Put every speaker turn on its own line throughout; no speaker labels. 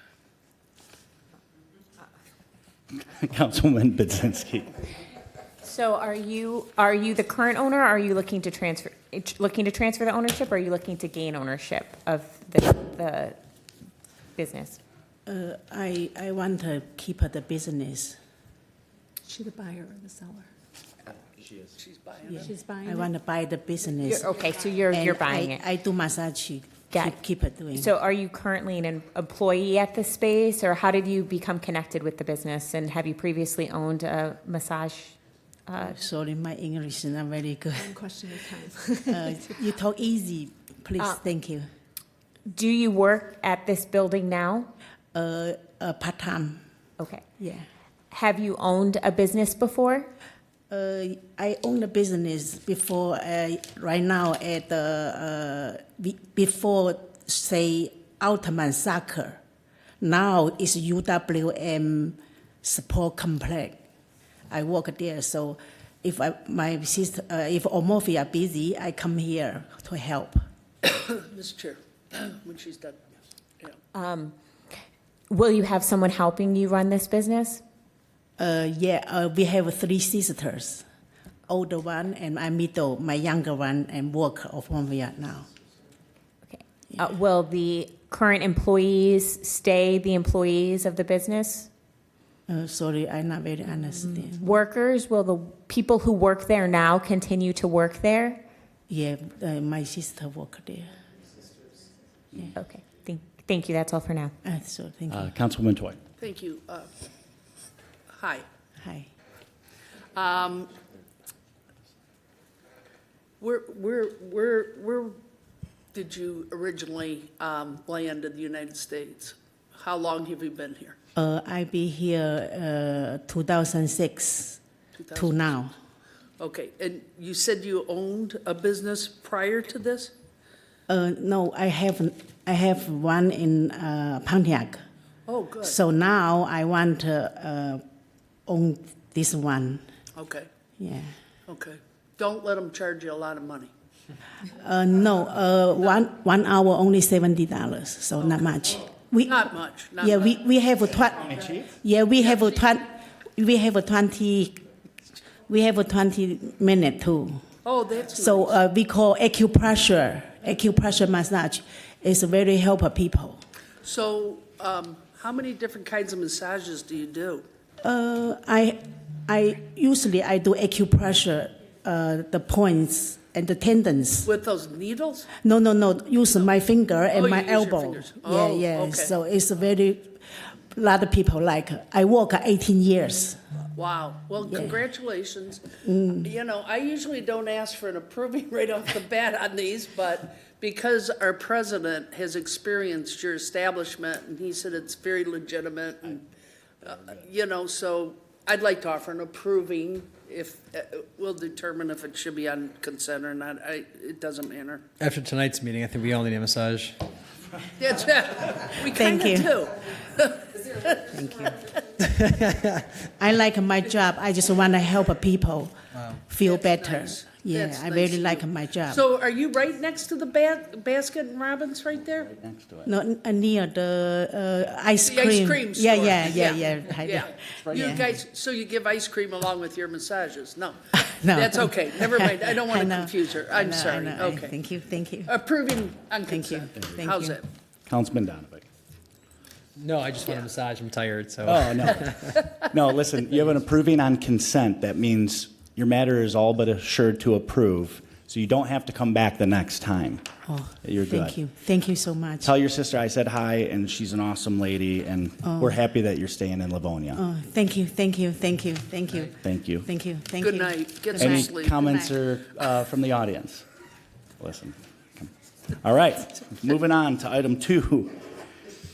Councilman Budzinski.
So are you, are you the current owner, or are you looking to transfer, it- looking to transfer the ownership, or are you looking to gain ownership of the, the business?
Uh, I, I want to keep the business.
She the buyer or the seller? Uh, She is. She's buying
I want to buy the business.
You're- Okay, so you're, you're
And
buying
I-
it.
I do massage, keep,
Got it.
keep it doing.
So are you currently an employee at the space, or how did you become connected with the business? And have you previously owned a massage? uh,
Sorry, my English is not very good.
One question at a time.
Uh, You talk easy, please,
Uh,
thank you.
Do you work at this building now?
Uh, uh, part-time,
Okay.
yeah.
Have you owned a business before?
Uh, I own a business before, uh, right now at the, uh, be- before, say, Altman Soccer. Now it's UWM Support Complex. I work there, so if I, my sister, uh, if Omofia busy, I come here to help.
Mr. Chair, when she's done, yeah.
Will you have someone helping you run this business?
Uh, yeah, uh, we have three sisters, older one and my middle, my younger one, and work of Omofia now.
Okay. Uh, Will the current employees stay the employees of the business?
Uh, sorry, I not very understand.
Workers, will the people who work there now continue to work there?
Yeah, uh, my sister worked there.
Okay, thank, thank you, that's all for now.
Uh, so thank
Uh,
you.
Councilwoman Toy.
Thank you. Uh, Hi.
Hi.
Um, Where, where, where, where did you originally um, land in the United States? How long have you been here?
Uh, I be here uh, 2006 to
2000?
now.
Okay, and you said you owned a business prior to this?
Uh, no, I have I have one in uh, Pontiac.
Oh, good,
So now I want to uh, own this one.
okay,
Yeah.
okay. Don't let them charge you a lot of money.
Uh, no, uh, one one hour only seventy dollars, so not much. We
Not much, not
yeah,
much.
we we have a twen- yeah we have a twen- we have a twenty we have a twenty minute too.
Oh, that's
So
nice.
uh, we call acupressure acupressure massage. It's very help people.
So um, how many different kinds of massages do you do?
Uh, I I usually I do acupressure uh, the points and the tendons.
With those needles?
No, no, no. Use my finger and
Oh,
my
you use your
elbow.
fingers.
yeah,
Oh,
yeah.
okay.
So it's a very lot of people like. I work 18 years.
Wow. Well,
Yeah. Mm.
congratulations. You know, I usually don't ask for an approving right off the bat on these, but because our president has experienced your establishment and he said it's very legitimate and, uh, you know, so I'd like to offer an approving if, uh, we'll determine if it should be on consent or not. I, it doesn't matter.
After tonight's meeting, I think we all need a massage.
That's it. We
Thank
kind
you.
of do.
I like my job. I just want to help people feel
That's
better.
nice.
Yeah,
That's
I
nice
really
of
like
you.
my job.
So are you right next to the ba- basket and Robbins right there?
no, n- uh, near the uh, ice
The
cream.
ice cream store.
Yeah, yeah, yeah, yeah. I-
Yeah. You
Yeah.
guys, so you give ice cream along with your massages? No.
No.
That's okay. Never mind. I don't want to
know.
confuse her.
I
I'm
know, I
sorry.
know. I-
Okay. Uh,
Thank you, thank you.
Approving on
Thank you.
consent.
Thank
How's
you.
it?
Councilman Donovan.
No, I just want a massage. I'm tired, so.
Oh, no. No, listen, you have an approving on consent. That means your matter is all but assured to approve, so you don't have to come back the next time.
Oh,
You're good.
Thank you, thank you so much.
Tell your sister I said hi, and she's an awesome lady, and we're happy that you're staying in Livonia.
Oh, thank you, thank you, thank you, thank you.
Thank you.
Thank you, thank you.
Good night. Get some
Any
sleep.
comments or, uh, from the audience? Listen. come. All right, moving on to item two.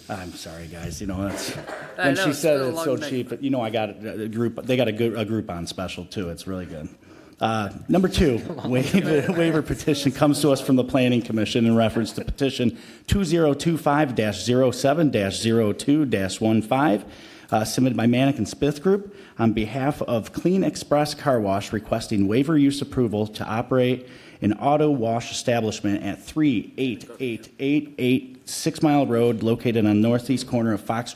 I'm sorry, guys, you know, that's,
I
when
know,
she
it's
said
been a
it's
long
so
night.
cheap, but you know, I got a a group, they got a good, a group on special too, it's really good. Uh, Number two, waiver waiver petition comes to us from the Planning Commission in reference to petition 2025-07-02-15, uh, submitted by Manic and Smith Group on behalf of Clean Express Car Wash requesting waiver use approval to operate an auto wash establishment at 38888 Six Mile Road located on northeast corner of Fox Drive